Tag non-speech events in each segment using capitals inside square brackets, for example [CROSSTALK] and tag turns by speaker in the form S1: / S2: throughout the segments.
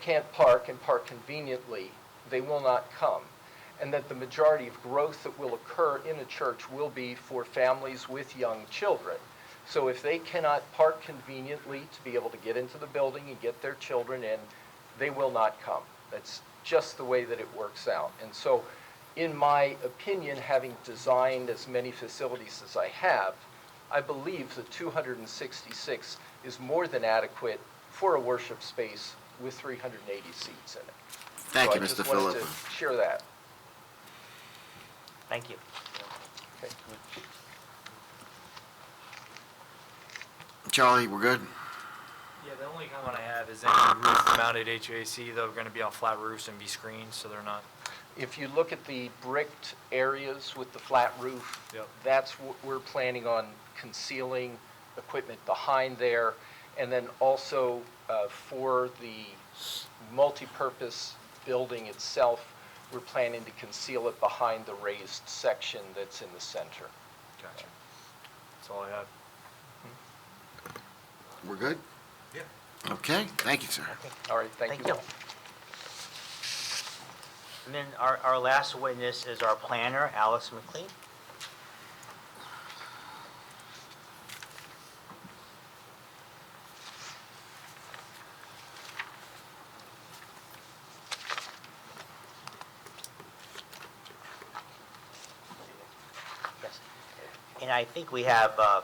S1: can't park and park conveniently, they will not come. And that the majority of growth that will occur in a church will be for families with young children. So if they cannot park conveniently to be able to get into the building and get their children in, they will not come. That's just the way that it works out. And so, in my opinion, having designed as many facilities as I have, I believe the 266 is more than adequate for a worship space with 380 seats in it.
S2: Thank you,
S1: So
S2: Mr.
S1: I just wanted
S2: Philippa.
S1: to share that.
S3: Thank you.
S1: Okay.
S2: Charlie, we're good?
S4: Yeah, the only comment I have is any roof-mounted HVAC, though, are going to be on flat roofs and be screened, so they're not,
S1: If you look at the bricked areas with the flat roof,
S4: Yep.
S1: that's what we're planning on concealing equipment behind there. And then also uh, for the multipurpose building itself, we're planning to conceal it behind the raised section that's in the center.
S4: gotcha. That's all I have.
S2: We're good? Yeah. Okay, thank you, sir.
S1: All right, thank
S3: Thank
S1: you
S3: you.
S1: all.
S3: And then our, our last witness is our planner, Alice McLean. Yes. And I think we have, uh,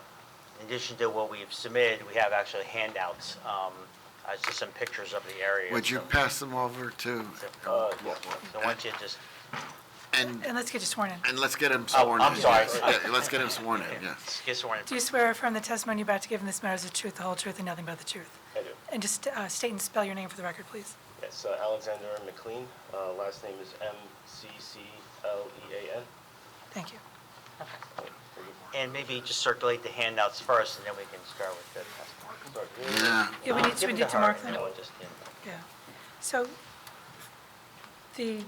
S3: in addition to what we've submitted, we have actually handouts, um, uh, just some pictures of the area.
S2: Would you
S3: so-
S2: pass them over to,
S3: uh, yeah, So why don't you just,
S2: and,
S5: And let's get you sworn in.
S2: and let's get him sworn in.
S3: Oh, I'm sorry.
S2: [LAUGHS] Yeah, Let's get him sworn in, yeah.
S3: get sworn in.
S5: Do you swear affirm the testimony you're about to give in this matter is the truth, the whole truth, and nothing but the truth?
S6: I do.
S5: And just uh, state and spell your name for the record, please.
S6: Yes, uh, Alexander McLean. Uh, Last name is M-C-C-L-E-A-N.
S5: Thank you.
S3: Uh, And maybe just circulate the handouts first, and then we can start with the testimony.
S6: Sorry.
S2: Yeah,
S5: Yeah, we need to, we need to mark them.
S3: Give it her, and then we'll just, yeah.
S5: Yeah. So the,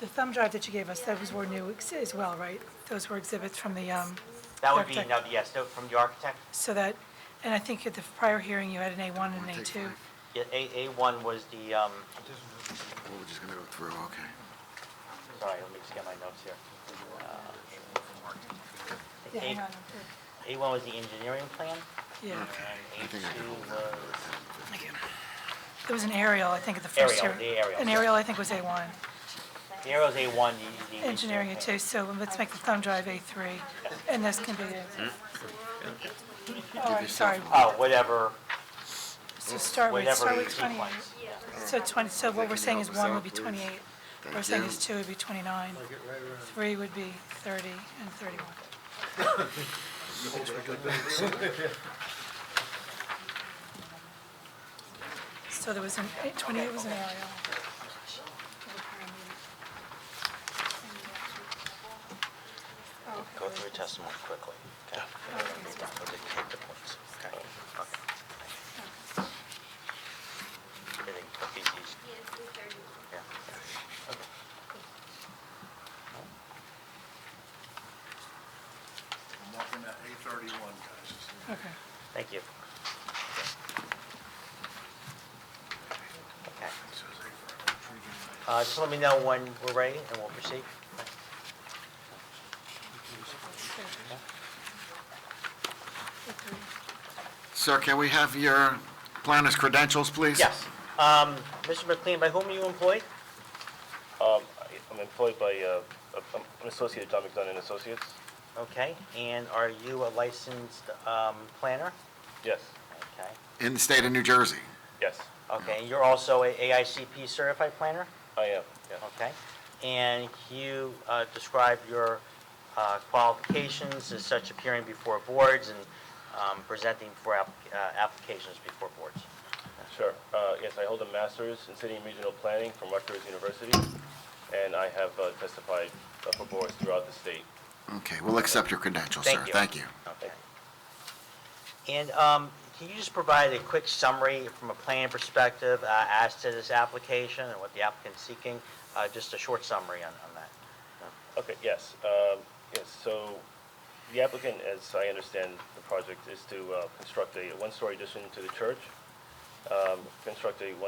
S5: the thumb drive that you gave us, those were new ex- as well, right? Those were exhibits from the, um,
S3: That would be,
S5: Architect.
S3: now, yes, no, from the architect,
S5: so that, and I think at the prior hearing, you had an A1 and an
S2: Wanna take
S5: A2.
S2: five?
S3: Yeah, A, A1 was the, um,
S2: Well, oh, we're just gonna go through, okay.
S3: sorry, let me just get my notes here. Uh,
S5: Yeah, hang on.
S3: A1 was the engineering plan,
S5: Yeah.
S3: and
S2: think I can hold
S3: A2 was,
S5: There was an aerial, I think, at the first
S3: Aerial,
S5: hearing.
S3: the aerial,
S5: An
S3: yeah.
S5: aerial, I think, was A1.
S3: the arrow's A1, the. the
S5: Engineering at two,
S3: plan.
S5: so let's make the thumb drive A3, and this can be the... Oh, I'm sorry,
S3: Oh, whatever,
S5: so start with,
S3: whatever
S5: start with 28.
S3: sequence.
S5: So 20, so what we're saying is
S2: Can you help us out,
S5: 1 would be
S2: please?
S5: 28, what we're
S2: Thank
S5: saying
S2: you.
S5: is 2 would be 29, 3 would be 30, and 31. So there was an, 28 was an aerial.
S3: Go through your testimony quickly, okay? We'll just take the points, okay? Okay. Everything, took these easy. Yeah.
S7: I'm walking at eight thirty-one, guys.
S5: Okay.
S3: Thank you. Okay.
S7: It says eight thirty.
S3: Uh, Just let me know when we're ready, and we'll proceed.
S2: Sir, can we have your planner's credentials, please?
S3: Yes. Um, Mr. McLean, by whom are you employed?
S6: Um, I- I'm employed by, uh, I'm an associate of John McDonough and Associates.
S3: Okay, and are you a licensed um, planner?
S6: Yes,
S3: Okay,
S2: In the state of New Jersey?
S6: yes,
S3: okay, and you're also a AICP certified planner?
S6: I am, yes.
S3: Okay, and can you uh, describe your uh, qualifications as such appearing before boards and um, presenting for app- uh, applications before boards?
S6: Sure. Uh, Yes, I hold a master's in city and regional planning from Rutgers University, and I have uh, testified uh, for boards throughout the state.
S2: Okay, we'll accept your credentials,
S3: Thank
S2: sir.
S3: you.
S2: Thank you.
S3: Okay. And um, can you just provide a quick summary from a planning perspective uh, as to this application and what the applicant's seeking? Uh, Just a short summary on on that.
S6: Okay, yes, um, yes, so the applicant, as I understand the project, is to uh, construct a one-story addition to the church, um, construct a